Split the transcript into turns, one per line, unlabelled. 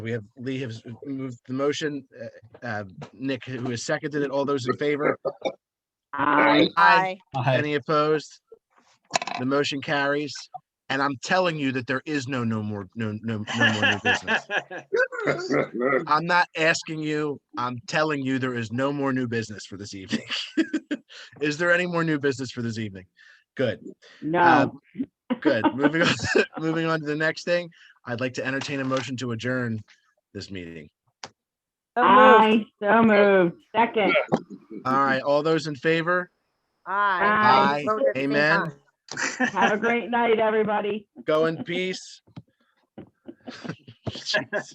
We have Lee has moved the motion. uh, uh, Nick, who has seconded it. All those in favor?
Aye.
Aye.
Aye.
Any opposed? The motion carries. And I'm telling you that there is no, no more, no, no, no more new business. I'm not asking you, I'm telling you, there is no more new business for this evening. Is there any more new business for this evening? Good. Uh,
No,
Good. Moving on, moving on to the next thing. I'd like to entertain a motion to adjourn this meeting.
So moved.
aye, so moved. Second,
All right, all those in favor? Aye.
Aye. Vote at the same
Amen.
time.
have a great night, everybody.
Go in peace. Jeez.